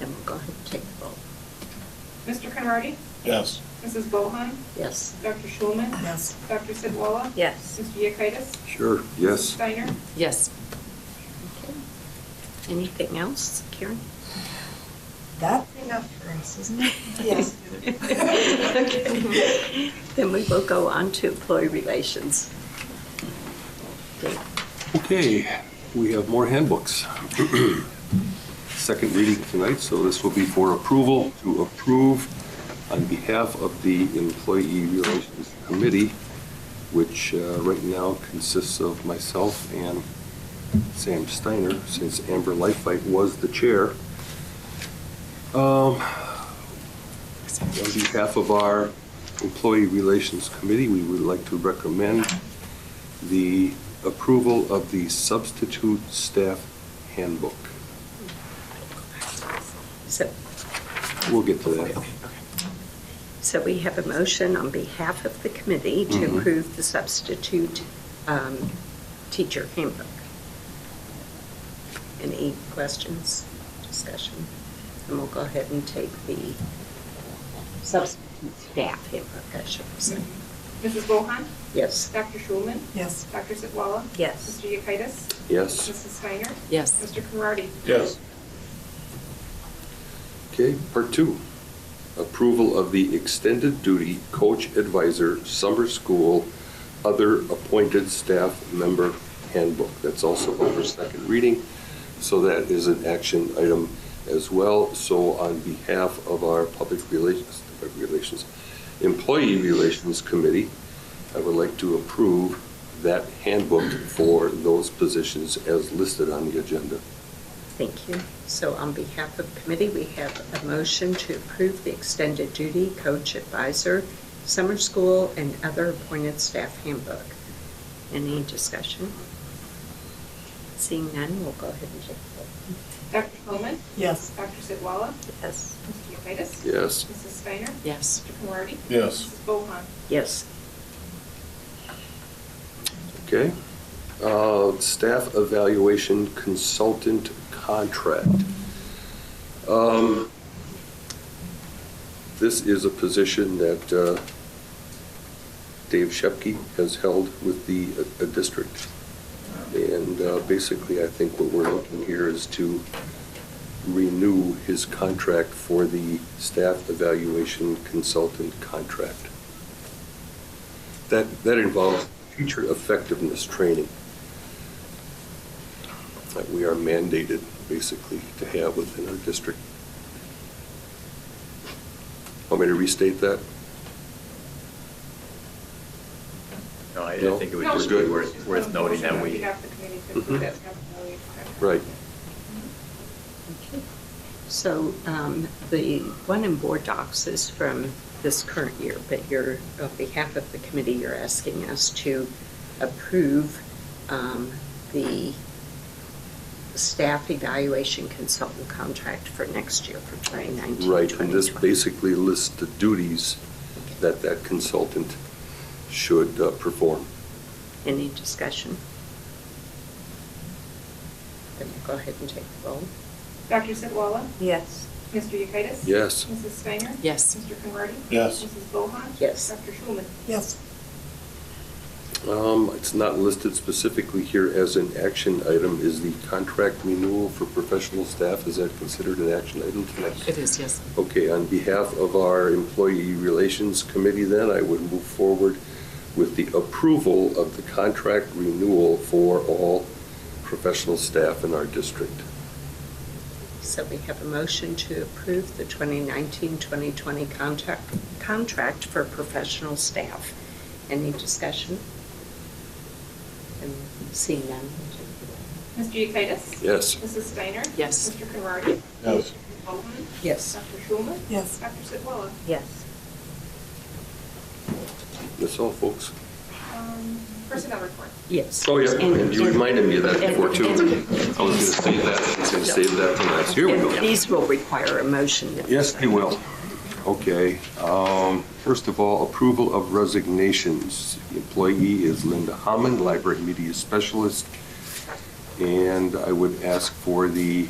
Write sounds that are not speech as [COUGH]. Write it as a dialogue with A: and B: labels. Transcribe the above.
A: and we'll go ahead and take the vote.
B: Mr. Conrady?
C: Yes.
B: Mrs. Bohan?
A: Yes.
B: Dr. Schulman?
D: Yes.
B: Dr. Sidwala?
A: Yes.
B: Mr. Yekitis?
E: Sure, yes.
B: Steiner?
D: Yes.
A: Okay. Anything else, Karen?
D: That enough for us, isn't it? [LAUGHS]
A: Yes. [LAUGHS] Then we will go on to employee relations. Dave?
E: Okay, we have more handbooks. [CLEARS THROAT] Second reading tonight, so this will be for approval, to approve on behalf of the Employee Relations Committee, which uh, right now consists of myself and Sam Steiner, since Amber Lifelight was the chair. Um, On behalf of our Employee Relations Committee, we would like to recommend the approval of the substitute staff handbook.
A: So,
E: We'll get to that.
A: so we have a motion on behalf of the committee to
E: Mhm.
A: approve the substitute um, teacher handbook. Any questions, discussion? And we'll go ahead and take the substitute staff handbook, I should say.
B: Mrs. Bohan?
A: Yes.
B: Dr. Schulman?
D: Yes.
B: Dr. Sidwala?
A: Yes.
B: Mr. Yekitis?
E: Yes,
B: Mrs. Steiner?
D: Yes.
B: Mr. Conrady?
C: Yes.
E: okay, part two. Approval of the extended duty coach advisor summer school other appointed staff member handbook. That's also over second reading, so that is an action item as well. So on behalf of our public relations, public relations, employee relations committee, I would like to approve that handbook for those positions as listed on the agenda.
A: Thank you. So on behalf of committee, we have a motion to approve the extended duty coach advisor, summer school, and other appointed staff handbook. Any discussion? Seeing none, we'll go ahead and take the vote.
B: Dr. Schulman?
D: Yes.
B: Dr. Sidwala?
A: Yes.
B: Mr. Yekitis?
E: Yes.
B: Mrs. Steiner?
D: Yes.
B: Mr. Conrady?
C: Yes.
B: Mrs. Bohan?
A: Yes.
E: Okay. Uh, Staff evaluation consultant contract. Um, This is a position that uh, Dave Shepke has held with the uh, uh, district. And uh, basically, I think what we're looking here is to renew his contract for the staff evaluation consultant contract. That, that involves teacher effectiveness training that we are mandated, basically, to have within our district. Want me to restate that?
F: No, I I
E: No?
F: think it would
B: No,
F: just
E: We're
F: be
E: good.
F: worth, worth noting that
B: On
F: we, Mm-hmm.
B: behalf of the committee, to approve that staff evaluation contract.
E: Right.
A: Okay. So um, the one in board docs is from this current year, but you're, on behalf of the committee, you're asking us to approve um, the staff evaluation consultant contract for next year for 2019.
E: Right, and this
A: 2020.
E: basically lists the duties that that consultant should uh, perform.
A: Any discussion? Then we'll go ahead and take the roll.
B: Dr. Sidwala?
A: Yes.
B: Mr. Yekitis?
E: Yes.
B: Mrs. Steiner?
D: Yes.
B: Mr. Conrady?
C: Yes.
B: Mrs. Bohan?
A: Yes.
B: Dr. Schulman?
D: Yes.
E: Um, It's not listed specifically here as an action item. Is the contract renewal for professional staff, is that considered an action item tonight?
D: It is, yes.
E: Okay, on behalf of our Employee Relations Committee, then, I would move forward with the approval of the contract renewal for all professional staff in our district.
A: So we have a motion to approve the 2019-2020 contract, contract for professional staff. Any discussion? And seeing none.
B: Mr. Yekitis?
E: Yes.
B: Mrs. Steiner?
D: Yes.
B: Mr. Conrady?
C: Yes.
B: Mrs. Bohan?
A: Yes.
B: Dr. Schulman?
D: Yes.
B: Dr. Sidwala?
A: Yes.
E: That's all, folks.
B: Um, Personnel report.
A: Yes.
E: Oh, yeah, and you reminded me of that
A: And-
E: before, too. I was
A: and-
E: going to save that, I was going to save that for last. Here we
A: and
E: go.
A: These will require a motion.
E: Yes, they will. Okay, um, first of all, approval of resignations. The Employee is Linda Hammond, Library Media Specialist, and I would ask for the